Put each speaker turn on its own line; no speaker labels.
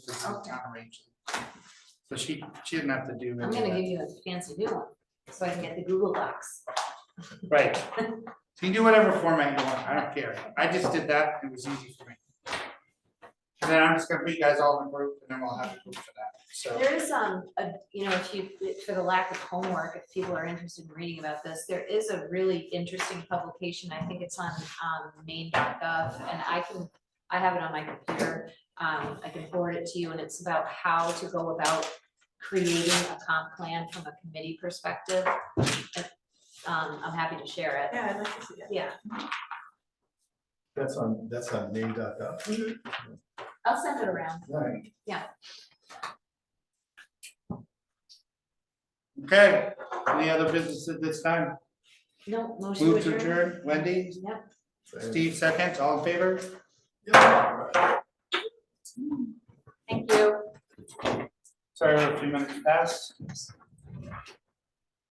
and
Okay.
counterarrange it. So she, she didn't have to do
I'm
any
gonna
of
give you a fancy new one, so I can get the Google Docs.
that, right? So you can do whatever format you want, I don't care, I just did that, it was easy for me. And then I'm just gonna put you guys all in group, and then we'll have a group for that, so,
There is, um, a, you know, if you, for the lack of homework, if people are interested in reading about this, there is a really interesting publication. I think it's on, um, maine.gov and I can, I have it on my computer. Um, I can forward it to you and it's about how to go about creating a comp plan from a committee perspective. Um, I'm happy to share it.
Yeah, I'd like to see that.
Yeah,
That's on, that's on name.gov.
I'll send it around.
Right.
okay, any other business at this time?
No, motion to
Move to
adjourn.
adjourn, Wendy,
Yep.
Steve seconds, all in favor?
Yeah.
Thank you.
Sorry, we're a few minutes past.